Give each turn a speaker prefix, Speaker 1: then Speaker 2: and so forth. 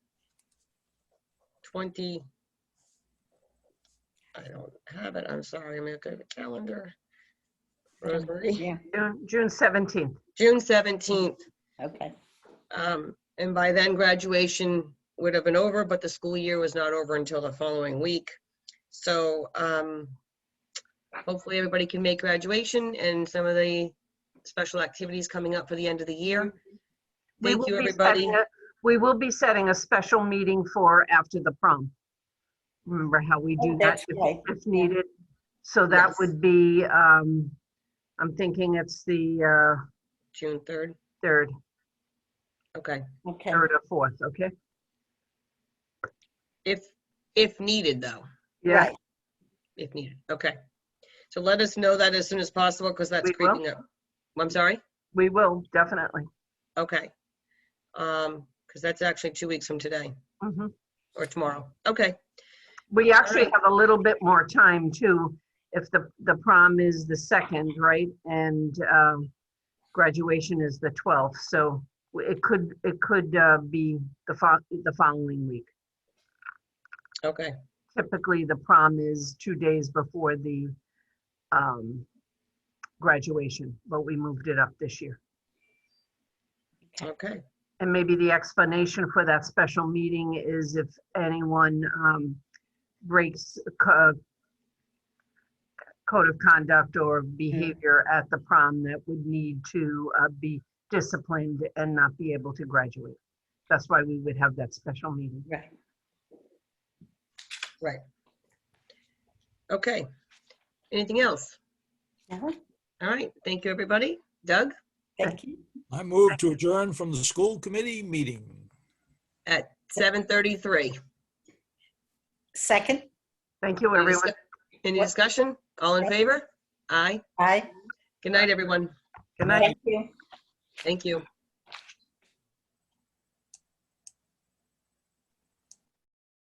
Speaker 1: twenty. I don't have it, I'm sorry, I'm looking at the calendar. Rosemary,
Speaker 2: Yeah,
Speaker 3: June, June 17th.
Speaker 1: June seventeenth,
Speaker 2: okay.
Speaker 1: um, and by then graduation would have been over, but the school year was not over until the following week. So, um, hopefully everybody can make graduation and some of the special activities coming up for the end of the year.
Speaker 3: We
Speaker 1: Thank
Speaker 3: will
Speaker 1: you,
Speaker 3: be
Speaker 1: everybody.
Speaker 3: setting a- We will be setting a special meeting for after the prom. Remember how we do
Speaker 2: Oh,
Speaker 3: that
Speaker 2: That's right.
Speaker 3: if- if needed? So that
Speaker 1: Yes.
Speaker 3: would be, um, I'm thinking it's the uh,
Speaker 1: June third,
Speaker 3: third,
Speaker 1: okay.
Speaker 2: Okay,
Speaker 3: third or fourth, okay?
Speaker 1: If, if needed, though.
Speaker 3: Yeah.
Speaker 2: right.
Speaker 1: if needed. Okay. So let us know that as soon as possible because that's
Speaker 3: We will.
Speaker 1: creeping up. I'm sorry?
Speaker 3: We will, definitely.
Speaker 1: Okay. Um, because that's actually two weeks from today
Speaker 3: Mhm.
Speaker 1: or tomorrow. Okay.
Speaker 3: We actually
Speaker 1: right.
Speaker 3: have a little bit more time too, if the, the prom is the second, right? And um, graduation is the 12th, so it could, it could uh, be the fol, the following week.
Speaker 1: Okay.
Speaker 3: Typically, the prom is two days before the um, graduation, but we moved it up this year.
Speaker 1: Okay.
Speaker 3: And maybe the explanation for that special meeting is if anyone um, breaks co- code of conduct or behavior at the prom that would need to uh, be disciplined and not be able to graduate. That's why we would have that special meeting.
Speaker 2: Right.
Speaker 1: Okay. Anything else?
Speaker 2: No,
Speaker 1: All right. Thank you, everybody. Doug
Speaker 2: Uh-huh. Thank you.
Speaker 4: I move to adjourn from the school committee meeting.
Speaker 1: at 7:33.
Speaker 2: Second,
Speaker 3: Thank you, everyone.
Speaker 1: Any discussion? All in favor? Aye.
Speaker 2: aye.
Speaker 1: Good night, everyone.
Speaker 3: Good night.
Speaker 2: Thank you.
Speaker 1: Thank you.